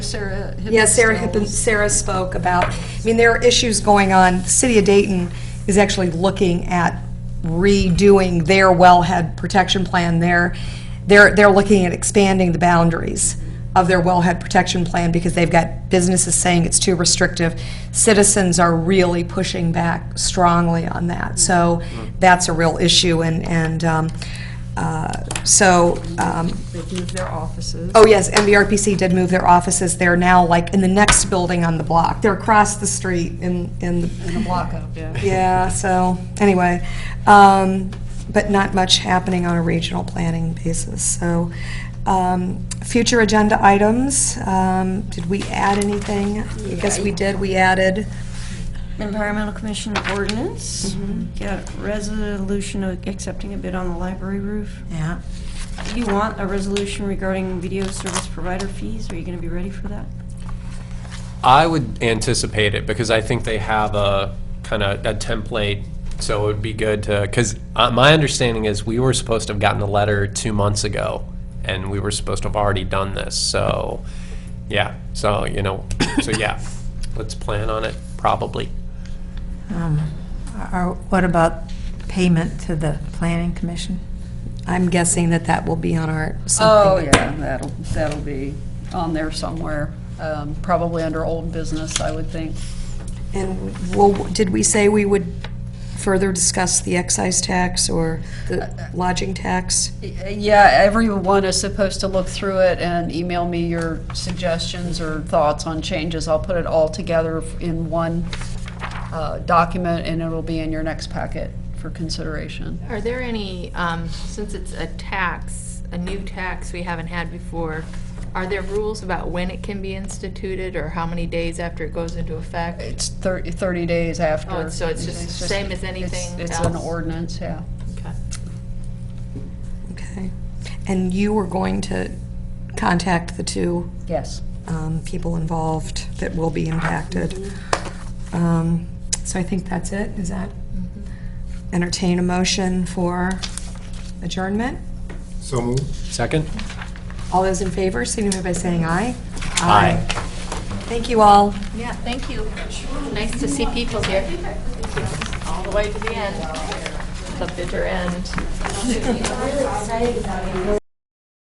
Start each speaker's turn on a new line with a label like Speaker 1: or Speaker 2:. Speaker 1: Sarah.
Speaker 2: Yeah, Sarah Hippen,
Speaker 1: Hippenstall's-
Speaker 2: Sarah spoke about, I mean, there are issues going on. The City of Dayton is actually looking at redoing their wellhead protection plan. They're, they're, they're looking at expanding the boundaries of their wellhead protection plan because they've got businesses saying it's too restrictive. Citizens are really pushing back strongly on that. So that's a real issue and, and, um, uh, so, um,
Speaker 1: They moved their offices.
Speaker 2: Oh, yes, MVRPC did move their offices. They're now like in the next building on the block. They're across the street in, in,
Speaker 1: The block up, yeah.
Speaker 2: yeah, so, anyway. um, But not much happening on a regional planning basis, so. um, Future agenda items, um, did we add anything? I guess we did, we added.
Speaker 3: Environmental Commission ordinance, got resolution of accepting a bid on the library roof.
Speaker 4: Yeah.
Speaker 3: Do you want a resolution regarding video service provider fees? Are you going to be ready for that?
Speaker 5: I would anticipate it because I think they have a kind of a template, so it would be good to, because my understanding is we were supposed to have gotten a letter two months ago, and we were supposed to have already done this, so, yeah, so, you know, so yeah, let's plan on it, probably.
Speaker 4: Or Um, uh, what about payment to the planning commission?
Speaker 2: I'm guessing that that will be on our,
Speaker 1: Oh,
Speaker 2: something.
Speaker 1: yeah, that'll, that'll be on there somewhere, um, probably under old business, I would think.
Speaker 2: And, well, did we say we would further discuss the excise tax or the lodging tax?
Speaker 1: Yeah, everyone is supposed to look through it and email me your suggestions or thoughts on changes. I'll put it all together in one uh, document, and it'll be in your next packet for consideration.
Speaker 6: Are there any, um, since it's a tax, a new tax we haven't had before, are there rules about when it can be instituted or how many days after it goes into effect?
Speaker 1: It's thir- 30 days after.
Speaker 6: Oh, so it's just same as
Speaker 1: it's-
Speaker 6: anything
Speaker 1: It's an
Speaker 6: else?
Speaker 1: ordinance, yeah.
Speaker 6: Okay.
Speaker 2: Okay. And you were going to contact the two
Speaker 1: Yes.
Speaker 2: um, people involved that will be impacted. Um, So I think that's it. Is that entertain a motion for adjournment?
Speaker 7: So moved.
Speaker 5: Second?
Speaker 2: All those in favor, signify by saying aye.
Speaker 5: Aye.
Speaker 2: Thank you all.
Speaker 6: Yeah, thank you. Nice to see people here. All the way to the end, the bitter end.